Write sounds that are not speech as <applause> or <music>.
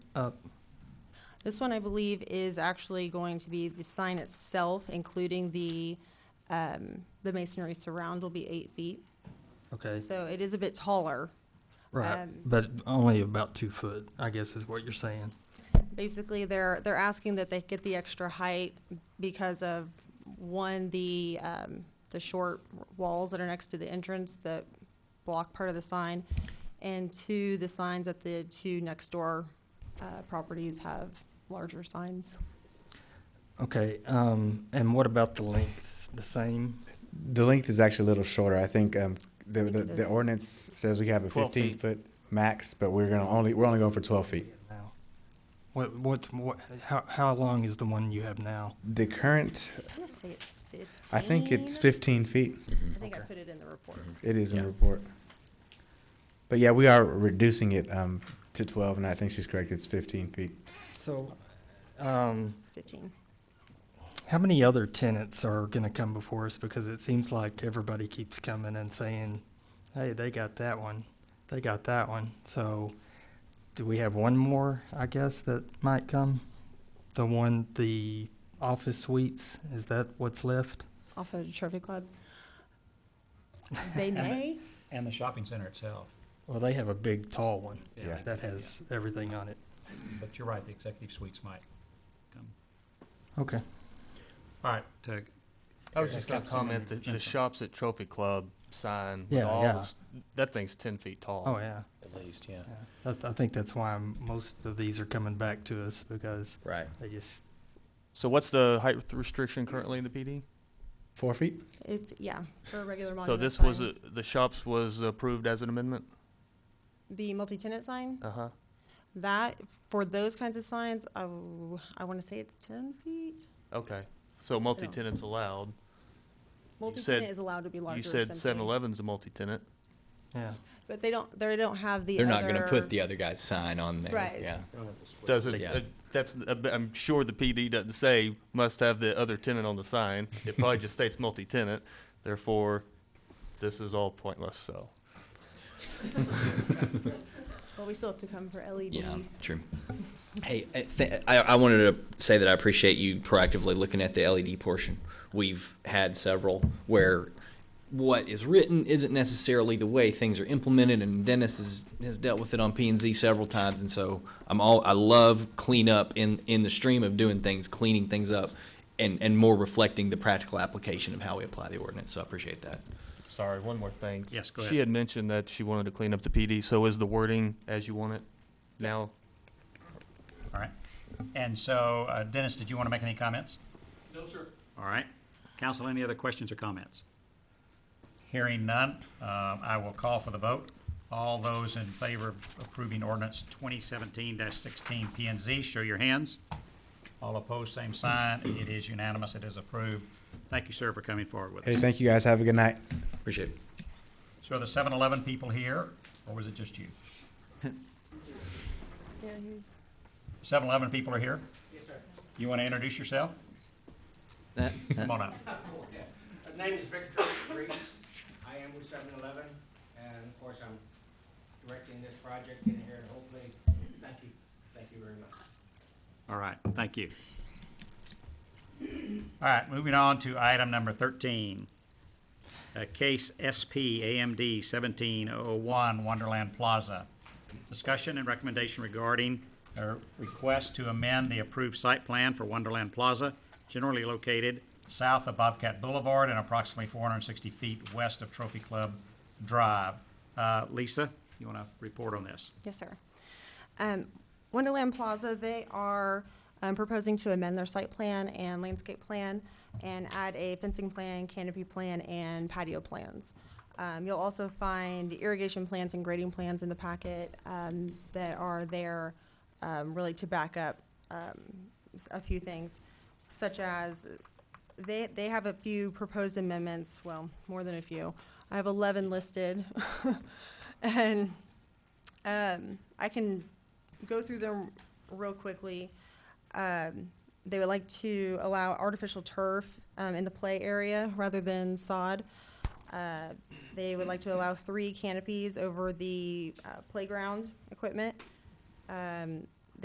up? This one, I believe, is actually going to be the sign itself, including the, um, the masonry surround will be eight feet. Okay, So it is a bit taller. right, um, but only about two foot, I guess is what you're saying. Basically, they're, they're asking that they get the extra height because of, one, the, um, the short walls that are next to the entrance that block part of the sign, and two, the signs at the two next door, uh, properties have larger signs. Okay, um, and what about the length, the same? The length is actually a little shorter. I think um, the, the, It the is. ordinance says we have a 12 fifteen feet. foot max, but we're gonna only, we're only going for twelve feet. now? What, what, what, how, how long is the one you have now? The current, I wanna say it's fifteen. I think it's fifteen feet. I think I put it in the report. It is in the Yeah. report. But yeah, we are reducing it um, to twelve, and I think she's correct. It's fifteen feet. So, um, 15. how many other tenants are gonna come before us? Because it seems like everybody keeps coming and saying, hey, they got that one, they got that one. So, do we have one more, I guess, that might come? The one, the office suites, is that what's left? Off of Trophy Club. They may. And the shopping center itself. Well, they have a big, tall one Yeah. that has everything on it. But you're right, the executive suites might come. Okay. All right, to. I was just gonna Councilman comment that the Jensen. shops at Trophy Club sign with Yeah, all yeah. those, that thing's ten feet tall. Oh, yeah. At least, yeah. I, I think that's why m- most of these are coming back to us because Right. they just, So what's the height restriction currently in the PD? Four feet? It's, yeah, for a regular So monument this was, sign. a- the shops was approved as an amendment? The multi-tenant sign, Uh-huh. that, for those kinds of signs, I, w- I want to say it's 10 feet? Okay. So multi-tenant's allowed. Multi-tenant is allowed to be larger. You said seven simply. eleven's a multi-tenant. yeah. But they don't, they don't have the They're not gonna other- put the other guy's sign on there. Right. Yeah. Doesn't, Yeah. uh, that's, uh, b- I'm sure the PD doesn't say must have the other tenant on the sign. <laughs> It probably just states multi-tenant, therefore, this is all pointless, so. Well, we still have to come for E LED. Yeah, true. Hey, I, th- I, I wanted to say that I appreciate you proactively looking at the LED portion. We've had several where what is written isn't necessarily the way things are implemented, and Dennis has, has dealt with it on P and Z several times. And so I'm all I love cleanup in in the stream of doing things, cleaning things up, and and more reflecting the practical application of how we apply the ordinance. So I appreciate that. Sorry, one more thing. Yes, go She ahead. had mentioned that she wanted to clean up the PD, so is the wording as you want it now? All right. And so, uh, Dennis, did you want to make any comments? No, sir. All right. Council, any other questions or comments? Hearing none, um, I will call for the vote. All those in favor of approving ordinance twenty seventeen sixteen P and Z, show your hands. All opposed, same sign. It is unanimous. It is approved. Thank you, sir, for coming forward with Hey, us. thank you guys. Have a good night. Appreciate it. So are the seven eleven people here, or was it just you? Yeah, he's. 7-Eleven people are here? Yes, sir. You want to introduce yourself? Come on up. My name is Victor Reese. I am with 7-Eleven, and of course, I'm directing this project in here, and hopefully, thank you, thank you very much. All right, thank you. All right, moving on to item number 13. Uh, Case SP AMD 1701 Wonderland Plaza. Discussion and recommendation regarding a request to amend the approved site plan for Wonderland Plaza, generally located south of Bobcat Boulevard and approximately 460 feet west of Trophy Club Drive. Uh, Lisa, you want to report on this? Yes, sir. Um, Wonderland Plaza, they are um, proposing to amend their site plan and landscape plan and add a fencing plan, canopy plan, and patio plans. Um, You'll also find irrigation plans and grading plans in the packet um, that are there um, really to back up um, s- a few things, such as they, they have a few proposed amendments, well, more than a few. I have 11 listed. <laughs> And um, I can go through them real quickly. Um, they would like to allow artificial turf um, in the play area rather than sod. Uh, they would like to allow three canopies over the uh, playground equipment. Um,